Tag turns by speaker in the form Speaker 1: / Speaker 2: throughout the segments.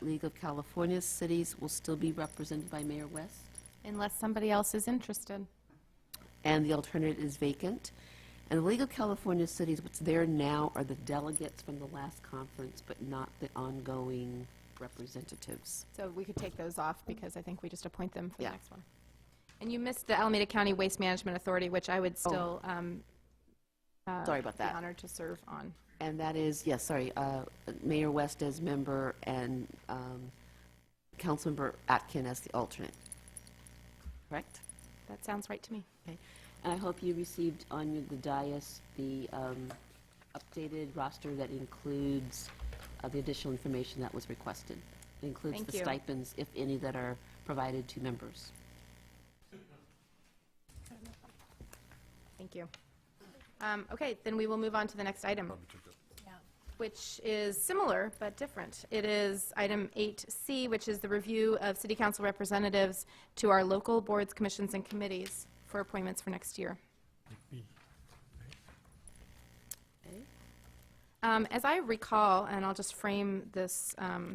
Speaker 1: League of California Cities will still be represented by Mayor West,
Speaker 2: Unless somebody else is interested.
Speaker 1: and the alternate is vacant. And the League of California Cities, what's there now are the delegates from the last conference, but not the ongoing representatives.
Speaker 2: So we could take those off because I think we just appoint them for the
Speaker 1: Yeah.
Speaker 2: next one. And you missed the Alameda County Waste Management Authority, which I would still um, uh,
Speaker 1: Sorry about
Speaker 2: be
Speaker 1: that.
Speaker 2: honored to serve on.
Speaker 1: And that is, yes, sorry, uh, Mayor West as member and um, Councilmember Atkin as the alternate. Correct?
Speaker 2: That sounds right to me.
Speaker 1: Okay. And I hope you received on your- the dais the um, updated roster that includes uh, the additional information that was requested. It Includes
Speaker 2: Thank
Speaker 1: the
Speaker 2: you.
Speaker 1: stipends, if any, that are provided to members.
Speaker 2: Thank you. Um, Okay, then we will move on to the next item, which is similar but different. It is item 8C, which is the review of city council representatives to our local boards, commissions, and committees for appointments for next year. Um, As I recall, and I'll just frame this um,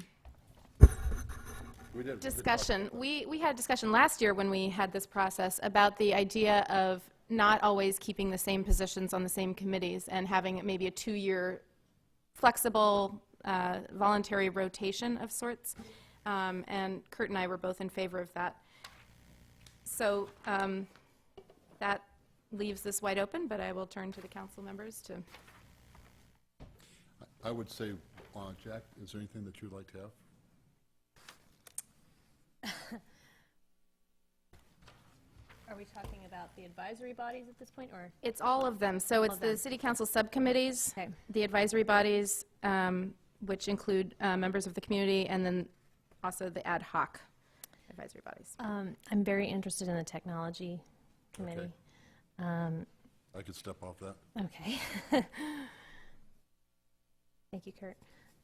Speaker 3: We did.
Speaker 2: discussion. We, we had a discussion last year when we had this process about the idea of not always keeping the same positions on the same committees and having maybe a two-year flexible, uh, voluntary rotation of sorts. Um, And Kurt and I were both in favor of that. So um, that leaves this wide open, but I will turn to the council members to,
Speaker 3: I would say, uh, Jack, is there anything that you'd like to have?
Speaker 4: Are we talking about the advisory bodies at this point, or?
Speaker 2: it's all of them. So it's
Speaker 4: of
Speaker 2: the
Speaker 4: them.
Speaker 2: city council subcommittees,
Speaker 4: Okay.
Speaker 2: the advisory bodies, um, which include uh, members of the community, and then also the ad hoc advisory bodies.
Speaker 4: um, I'm very interested in the technology committee. Um,
Speaker 3: I could step off that.
Speaker 4: Okay. Thank you, Kurt.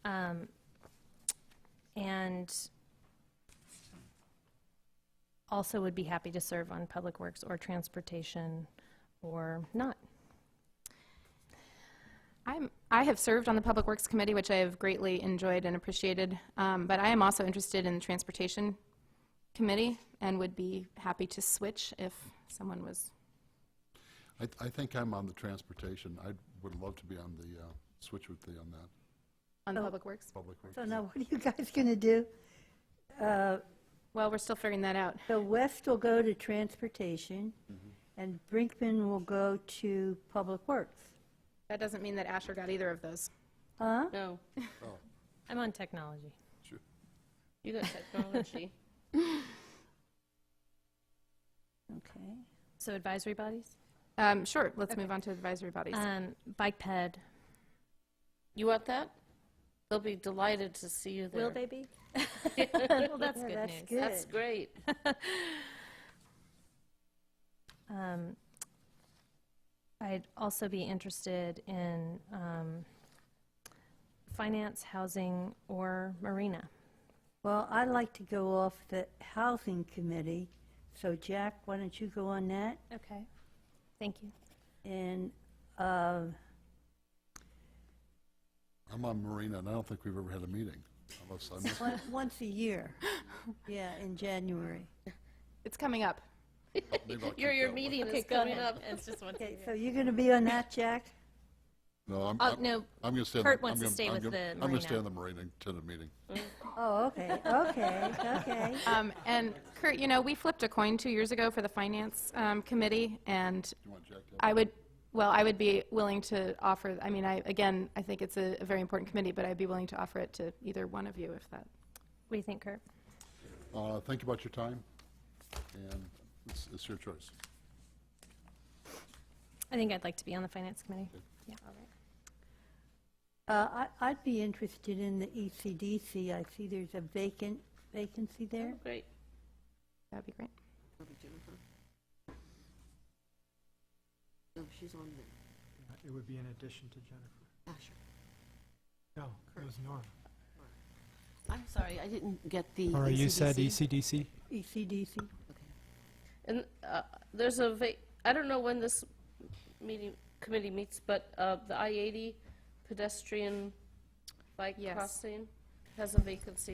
Speaker 4: Um, And also would be happy to serve on Public Works or Transportation or not.
Speaker 2: I'm, I have served on the Public Works Committee, which I have greatly enjoyed and appreciated, um, but I am also interested in the Transportation Committee and would be happy to switch if someone was,
Speaker 3: I, I think I'm on the transportation. I would love to be on the, uh, switch with the, on that,
Speaker 2: on the Public Works.
Speaker 3: public works.
Speaker 5: So now, what are you guys going to do?
Speaker 2: Well, we're still figuring that out.
Speaker 5: So West will go to transportation, and Brinkman will go to Public Works.
Speaker 2: That doesn't mean that Asher got either of those.
Speaker 5: Huh?
Speaker 6: No,
Speaker 3: Oh,
Speaker 4: I'm on technology.
Speaker 3: sure.
Speaker 6: you got technology.
Speaker 5: Okay.
Speaker 4: So advisory bodies?
Speaker 2: Um, Sure, let's move on to advisory bodies.
Speaker 4: Um, Bike ped.
Speaker 6: You want that? They'll be delighted to see you there.
Speaker 4: Will they be? Well, that's
Speaker 5: Yeah,
Speaker 4: good
Speaker 5: that's
Speaker 4: news.
Speaker 5: good.
Speaker 6: That's great.
Speaker 4: Um, I'd also be interested in um, finance, housing, or marina.
Speaker 5: Well, I'd like to go off the Housing Committee, so Jack, why don't you go on that?
Speaker 4: Okay. Thank you.
Speaker 5: And, uh,
Speaker 3: I'm on Marina, and I don't think we've ever had a meeting, unless I missed
Speaker 5: on- once a year, yeah, in January.
Speaker 2: It's coming up.
Speaker 3: maybe I'll keep
Speaker 6: Your, your
Speaker 3: that one.
Speaker 6: meeting
Speaker 4: Okay,
Speaker 6: is
Speaker 4: go
Speaker 6: coming
Speaker 4: ahead.
Speaker 6: up.
Speaker 4: It's just one.
Speaker 5: Okay, so you're going to be on that, Jack?
Speaker 3: No, I'm,
Speaker 4: Oh,
Speaker 3: I'm,
Speaker 4: no,
Speaker 3: I'm gonna stay. on the-
Speaker 4: Kurt wants
Speaker 3: I'm
Speaker 4: to
Speaker 3: gonna-
Speaker 4: stay
Speaker 3: I'm
Speaker 4: with
Speaker 3: gonna-
Speaker 4: the
Speaker 3: I'm gonna
Speaker 4: Marina.
Speaker 3: stay on the Marina until the meeting.
Speaker 5: Oh, okay, okay, okay.
Speaker 2: Um, And Kurt, you know, we flipped a coin two years ago for the Finance um, Committee, and
Speaker 3: You want Jack to? have-
Speaker 2: I would, well, I would be willing to offer, I mean, I, again, I think it's a a very important committee, but I'd be willing to offer it to either one of you if that,
Speaker 4: What do you think, Kurt?
Speaker 3: Uh, think about your time, and it's, it's your choice.
Speaker 4: I think I'd like to be on the finance committee. Yeah.
Speaker 5: Uh, I- I'd be interested in the E ECDC, I see there's a vacant, vacancy there.
Speaker 6: Great.
Speaker 2: that'd be great.
Speaker 1: No, Oh, she's on ah, there.
Speaker 7: It would be in addition to Jennifer.
Speaker 1: Asher.
Speaker 7: No, it was Nora.
Speaker 1: I'm sorry, I didn't get the.
Speaker 7: Nora, you said E
Speaker 1: ECDC.
Speaker 7: ECDC?
Speaker 5: E ECDC.
Speaker 6: And uh, there's a va- I don't know when this meeting committee meets, but uh, the I-80 pedestrian bike
Speaker 2: Yes.
Speaker 6: crossing has a vacancy